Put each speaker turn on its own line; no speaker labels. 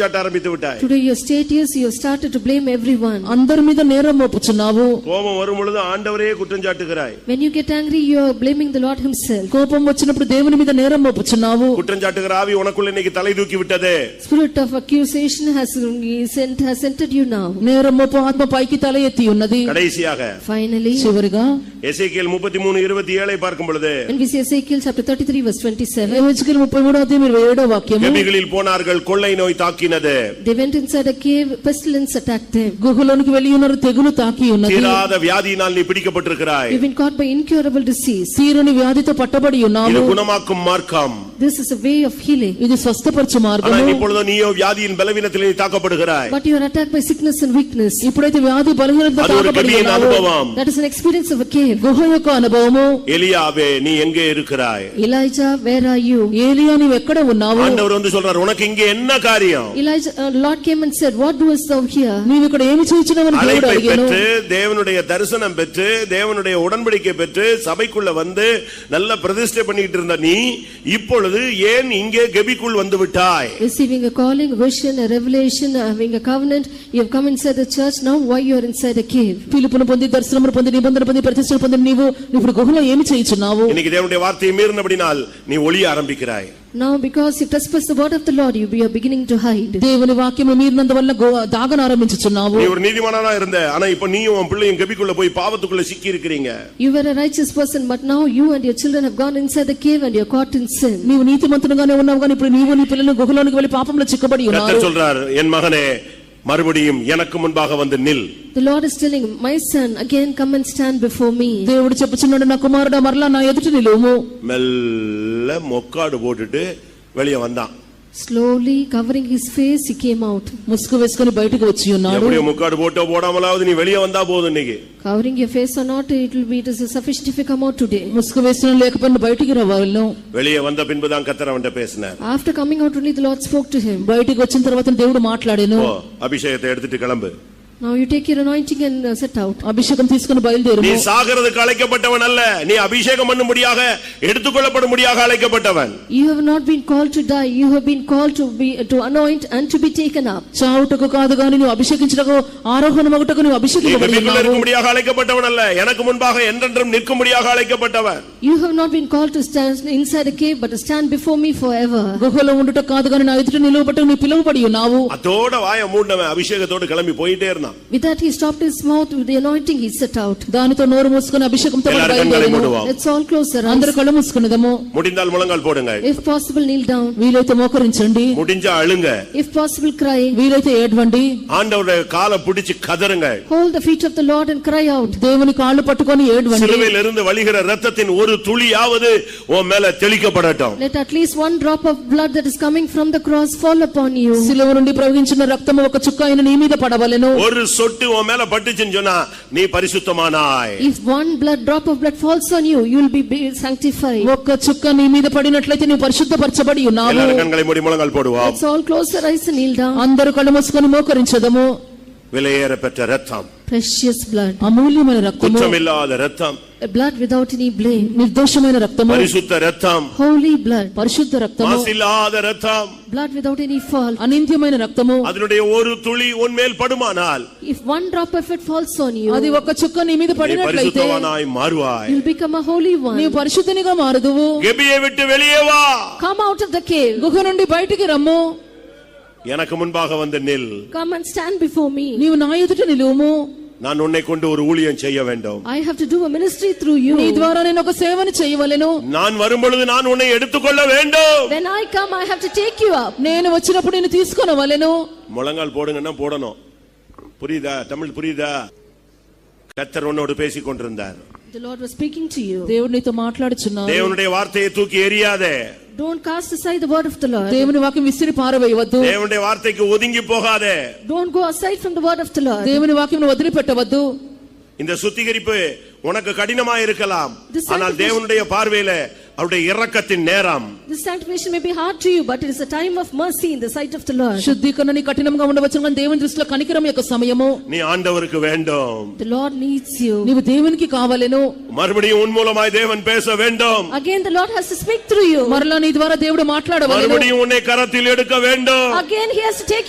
சாட்ட ஆரம்பித்து விட்டாய்
Today your status, you have started to blame everyone.
అందరి మీద నేరం మోపుచున్నావు
கோபம் வரும் பொழுது ஆண்டவரையே குற்றம் சாட்டுகிறாய்
When you get angry, you are blaming the Lord himself.
కోపం వచ్చినప్పుడు దేవుని మీద నేరం మోపుచున్నావు
குற்றம் சாட்டுகிற ஆவி உனக்குள்ள இன்னைக்கு தலை தூக்கி விட்டது
Spirit of accusation has sent, has entered you now.
నేరం మోపు ఆత్మ పైకి తల ఎత్తి ఉన్నది
கடைசியாக
Finally,
చివరిగా
எசேக்கியேல் முப்பத்தி மூணு இருபத்தி ஏழை பார்க்கும் பொழுது
when we see Ezekiel chapter thirty-three verse twenty-seven,
యెహెజ్కేలు ముప్పై మూడో అధ్యాయం ఇరవై ఏడో వాక్యము
கெபிகளில் போனார்கள் கொள்ளை நோய் தாக்கினது
they went inside a cave, pestilence attacked them.
గుహలోనికి వెళ్ళి ఉన్నారు తెగులు తాకి ఉన్నది
தீராத வியாதியினால் நீ பிடிக்கப்பட்டிருக்கிறாய்
You've been caught by incurable disease.
తీరుని వ్యాధితో పట్టబడి
இது
ఉన్నావు
குணமாக்கும் மார்க்கம்
This is a way of healing.
ఇది స్వస్థపరచు
ஆனால்
మార్గము
இப்பொழுதோ நீயோ வியாதியின் பலவீனத்தில் நீ தாக்கப்படுகிறாய்
But you are attacked by sickness and weakness.
ఇప్పుడైతే వ్యాధి బలహీనత
அது ஒரு
తాకబడి
கெபியின்
ఉన్నావు
அனுபவம்
That is an experience of a cave.
గుహ యొక్క అనుభవము
எலியாவே நீ எங்கே இருக்கிறாய்
Elijah, where are you?
ఏలియా నీవు ఎక్కడ ఉన్నావు
ஆண்டவர் வந்து சொல்றார் உனக்கு இங்கே என்ன காரியம்
Elijah, uh, Lord came and said, what doest thou here?
నీవు ఇక్కడ ఏమి చేయించినవని దేవుడు
அழைப்பை
అడిగాను
பெற்று தேவனுடைய தரிசனம் பெற்று தேவனுடைய உடன்படிக்கை பெற்று சபைக்குள்ள வந்து நல்ல பிரதிஷ்டை பண்ணிட்டு இருந்த நீ இப்பொழுது ஏன் இங்கே கெபிக்குள் வந்து விட்டாய்
Receiving a calling, vision, a revelation, having a covenant, you have come inside the church, now why you are inside a cave?
పిలుపును పొంది దర్శనమును పొంది నిబంధన పొంది ప్రతిష్టలు పొంది నీవు ఇప్పుడు గుహలో ఏమి చేయించున్నావు
இன்னைக்கு தேவனுடைய வார்த்தையை மீறினபடினால் நீ ஒளிய ஆரம்பிக்கிறாய்
Now because you trespass the word of the Lord, you you are beginning to hide.
దేవుని వాక్యము మీరినందు వల్ల దాగనారంభించుచున్నావు
நீ ஒரு நீதிமானா இருந்த ஆனா இப்ப நீயும் உன் பிள்ளையும் கெபிக்குள்ள போய் பாவத்துக்குள்ள சிக்கி இருக்கிறீங்க
You were a righteous person, but now you and your children have gone inside the cave and you are caught in sin.
నీవు నీతిమంతునిగానే ఉన్నావు కానీ ఇప్పుడు నీవు నీ పిల్లలు గుహలోనికి వెళ్ళి పాపంలో చిక్కబడి ఉన్నారు
கர்த்தர் சொல்றார் என் மகனே மறுபடியும் எனக்கு முன்பாக வந்து நில்
The Lord is telling, my son, again come and stand before me.
దేవుడు చెప్పుచున్నాడు నా కుమారుడా మరలా నా ఎదుట నిలువుము
மெல்ல மொக்காடு போட்டுட்டு வெளியே வந்தான்
Slowly covering his face, he came out.
ముసుగు వేసుకుని బయటకు వచ్చి ఉన్నాడు
எப்படியோ முக்காடு போட்டோ போடாமலாவது நீ வெளியே வந்தா போதும் இன்னைக்கு
Covering your face or not, it will be, it is sufficient if you come out today.
ముసుగు వేసిన లేకపోయినా బయటికి రావాలను
வெளியே வந்த பின்புதான் கத்தர் அவன்கிட்ட பேசினார்
After coming out only, the Lord spoke to him.
బయటికి వచ్చిన తర్వాత దేవుడు మాట్లాడాను
போ அபிஷேகத்தை எடுத்துட்டு கிளம்பு
Now you take your anointing and uh, set out.
అభిషేకం తీసుకుని
நீ
బయలుదేరు
சாகிறதுக்கு அழைக்கப்பட்டவன் அல்ல நீ அபிஷேகம் பண்ணும்படியாக எடுத்துக்கொள்ளப்படும்படியாக அழைக்கப்பட்டவன்
You have not been called to die, you have been called to be, to anoint and to be taken up.
చావుటకు కాదు గాని నువ్వు అభిషేకించటకు ఆరోహణమగుటకు నువ్వు
நீ கபிக்குள்ள
అభిషేకించబడుతున్నావు
இருக்கும்படியாக அழைக்கப்பட்டவன் அல்ல எனக்கு முன்பாக என்றென்றும் நிற்கும்படியாக அழைக்கப்பட்டவன்
You have not been called to stand inside a cave, but to stand before me forever.
గుహలో ఉండుట కాదు గాని నా ఎదుట నిలువబట్టు నువ్వు పిలువబడి ఉన్నావు
அதோட வாயை மூடினவன் அபிஷேகத்தோடு கிளம்பி போயிட்டே இருந்தான்
With that, he stopped his mouth, with the anointing, he set out.
దానితో నోరు మూసుకుని అభిషేకంతో
எல்லாரும் கண்களை
బయలుదేరు
மூடுவோம்
Let's all close our eyes.
అందరు కళ్ళు మూసుకునేదము
முடிந்தால் முழங்கால் போடுங்க
If possible, kneel down.
వీలైతే మోకరించండి
முடிஞ்சா அழுங்க
If possible, cry.
వీలైతే ఏడ్వండి
ஆண்டவருடைய காலை பிடிச்சு கதறுங்க
Hold the feet of the Lord and cry out.
దేవుని కాళ్ళు పట్టుకొని ఏడ్వండి
சிலுவையிலிருந்து வழிகிற ரத்தத்தின் ஒரு துளியாவது உன் மேல தெளிக்கப்படட்டும்
Let at least one drop of blood that is coming from the cross fall upon you.
శిలువ నుండి ప్రవహించిన రక్తము ఒక చుక్క అయిన నీ మీద పడవలెను
ஒரு சொட்டு உன் மேல பட்டுச்சுன்னு சொன்னா நீ பரிசுத்தமானாய்
If one blood drop of blood falls on you, you will be- be sanctified.
ఒక్క చుక్క నీ మీద పడినట్లయితే నువ్వు పరిశుద్ధపరచబడి ఉన్నావు
எல்லாரும் கண்களை மூடி முழங்கால் போடுவோம்
Let's all close our eyes and kneel down.
అందరూ కళ్ళు మూసుకొని మోకరించదము
விலையேற பெற்ற ரத்தம்
Precious blood,
అమూల్యమైన రక్తము
குற்றமில்லாத ரத்தం
a blood without any blame.
నిర్దోషమైన రక్తము
பரிசுத்த ரத்தம்
Holy blood,
పరిశుద్ధ రక్తము
மாசில்லாத ரத்தம்
blood without any fault.
అనింద్యమైన రక్తము
அதனுடைய ஒரு துளி உன் மேல் படுமானால்
If one drop of it falls on you,
అది ఒక చుక్క నీ మీద
நீ
పడినట్లయితే
பரிசுத்தவானாய் மாறுவாய்
you'll become a holy
నీవు
one.
పరిశుద్ధనిగా మారదువు
கெபியை விட்டு வெளியே வா
Come out of the cave.
గుహ నుండి బయటికి రమ్ము
எனக்கு முன்பாக வந்து நில்
Come and stand before me.
నీవు నా ఎదుట నిలువుము
நான் உன்னை கொண்டு ஒரு ஊழியம் செய்ய வேண்டும்
I have to do a ministry through
నీ
you.
ద్వారా నేను ఒక సేవను చేయవలెను
நான் வரும்பொழுது நான் உன்னை எடுத்துக்கொள்ள வேண்டும்
When I come, I have to take you up.
నేను వచ్చినప్పుడు నేను తీసుకొనవలెను
முழங்கால் போடுங்கன்னா போடணும் புரியுதா தமிழ் புரியுதா கத்தர் உன்னோடு பேசிக் கொண்டிருந்தார்
The Lord was speaking to you.
దేవుడు నీతో మాట్లాడుచున్నాను
தேவனுடைய வார்த்தையை தூக்கி எறியாதே
Don't cast aside the word of the Lord.
దేవుని వాక్యం విసిరి పారవేయవద్దు
தேவனுடைய வார்த்தைக்கு ஒதுங்கி போகாதே
Don't go aside from the word of the Lord.
దేవుని వాక్యం వదిలిపెట్టవద్దు
இந்த சுத்திகரிப்பு உனக்கு கடினமா இருக்கலாம் ஆனால் தேவனுடைய பார்வையில அவருடைய இரக்கத்தின் நேரம்
This sanctification may be hard to you, but it is a time of mercy in the sight of the Lord.
శుద్ధీకరణ నీ కఠినంగా ఉండవచ్చు కానీ దేవుని దృష్టిలో కనికరం యొక్క సమయము
நீ ஆண்டவருக்கு வேண்டும்
The Lord needs you.
నీవు దేవునికి కావలెను
மறுபடியும் உன் மூலமாய் தேவன் பேச வேண்டும்
Again, the Lord has to speak through you.
మరలా నీ ద్వారా దేవుడు మాట్లాడవలెను
மறுபடியும் உன்னை கரத்தில் எடுக்க வேண்டும்
Again, He has to take you.